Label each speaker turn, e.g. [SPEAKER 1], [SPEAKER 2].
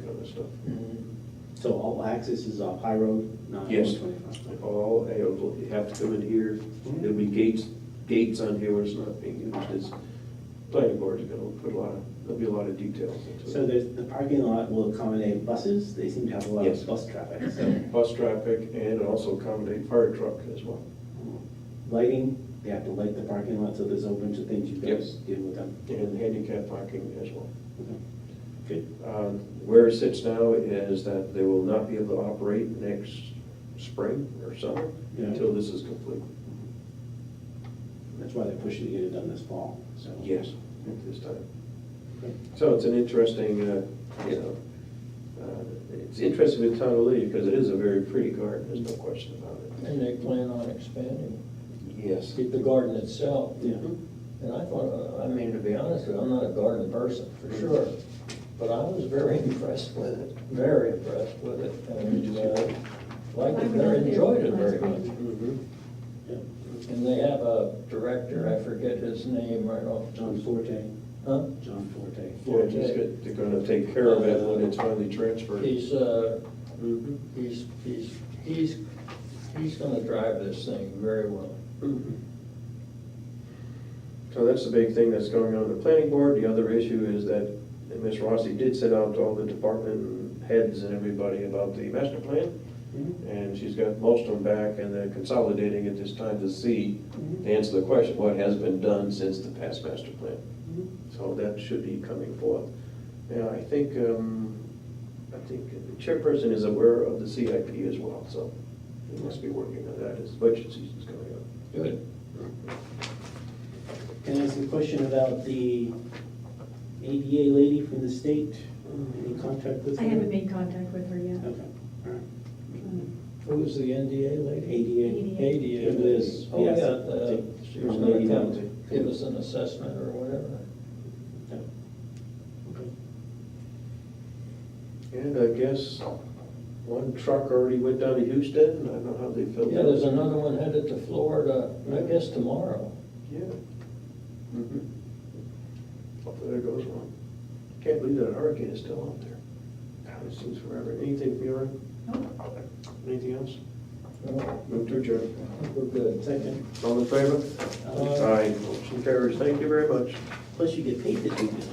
[SPEAKER 1] stuff.
[SPEAKER 2] Mm,
[SPEAKER 3] So all access is off High Road, not
[SPEAKER 1] Yes.
[SPEAKER 3] 125?
[SPEAKER 1] All, you know, you have to come in here, there'll be gates, gates on here where it's not being used, is, planning board's gonna put a lot of, there'll be a lot of details into
[SPEAKER 3] So
[SPEAKER 1] it.
[SPEAKER 3] there's, the parking lot will accommodate buses, they seem to have a lot
[SPEAKER 1] Yes.
[SPEAKER 3] of bus traffic, so
[SPEAKER 1] Bus traffic and also accommodate fire truck as well.
[SPEAKER 3] lighting, they have to light the parking lot, so there's a whole bunch of things you guys
[SPEAKER 1] Yes.
[SPEAKER 3] deal with them.
[SPEAKER 1] and handicap parking as well.
[SPEAKER 3] Okay. Good,
[SPEAKER 1] Um, Where it sits now is that they will not be able to operate next spring or summer
[SPEAKER 3] Yeah.
[SPEAKER 1] until this is complete.
[SPEAKER 3] that's why they're pushing to get it done this fall, so.
[SPEAKER 1] Yes, at this time.
[SPEAKER 3] Great.
[SPEAKER 1] So it's an interesting, uh, you know, uh, it's interesting with Tonalea because it is a very pretty garden, there's no question about it.
[SPEAKER 2] And they plan on expanding,
[SPEAKER 1] Yes.
[SPEAKER 2] the garden itself.
[SPEAKER 3] Yeah.
[SPEAKER 4] Mm-hmm.
[SPEAKER 2] And I thought, uh, I mean, to be honest with you, I'm not a garden person, for sure, but I was very impressed with it, very impressed with it, and uh, liked it, very enjoyed it very much.
[SPEAKER 3] Yeah.
[SPEAKER 2] And they have a director, I forget his name right off.
[SPEAKER 3] John Forte,
[SPEAKER 2] Huh?
[SPEAKER 3] John Forte.
[SPEAKER 1] Yeah, just get- they're gonna take care of it when it's finally transferred.
[SPEAKER 2] He's, uh, he's, he's, he's, he's gonna drive this thing very well.
[SPEAKER 1] So that's the big thing that's going on in the planning board. The other issue is that Ms. Rossi did send out to all the department heads and everybody about the master plan.
[SPEAKER 3] Mm-hmm.
[SPEAKER 1] And she's got most of them back and they're consolidating at this time to see,
[SPEAKER 3] Mm-hmm.
[SPEAKER 1] to answer the question, what has been done since the past master plan. So that should be coming forth. Now, I think, um, I think the chairperson is aware of the CIP as well, so they must be working on that as budget season's coming up.
[SPEAKER 2] Good.
[SPEAKER 3] Can I ask a question about the ADA lady from the state? Any contact with
[SPEAKER 4] I
[SPEAKER 3] her?
[SPEAKER 4] haven't made contact with her yet. Mm.
[SPEAKER 3] Okay, all right.
[SPEAKER 2] Who was the NDA lady?
[SPEAKER 3] ADA.
[SPEAKER 4] ADA.
[SPEAKER 2] ADA.
[SPEAKER 3] It is,
[SPEAKER 2] Oh, yeah,
[SPEAKER 3] yes.
[SPEAKER 2] the- she was gonna come to give us an assessment or whatever.
[SPEAKER 3] Yeah. Okay.
[SPEAKER 1] And I guess one truck already went down to Houston, and I don't know how they filled it.
[SPEAKER 2] Yeah, there's another one headed to Florida, I guess tomorrow.
[SPEAKER 1] Yeah. Mhm. Up there goes one. Can't believe that hurricane is still out there. God, it seems forever. Anything, Fiore? Anything else?
[SPEAKER 2] No,
[SPEAKER 1] Move to adjourn.
[SPEAKER 2] We're good.
[SPEAKER 3] Second,
[SPEAKER 1] All in favor?
[SPEAKER 2] Aye.
[SPEAKER 1] Motion carries. Thank you very much.
[SPEAKER 3] plus you get paid to do this.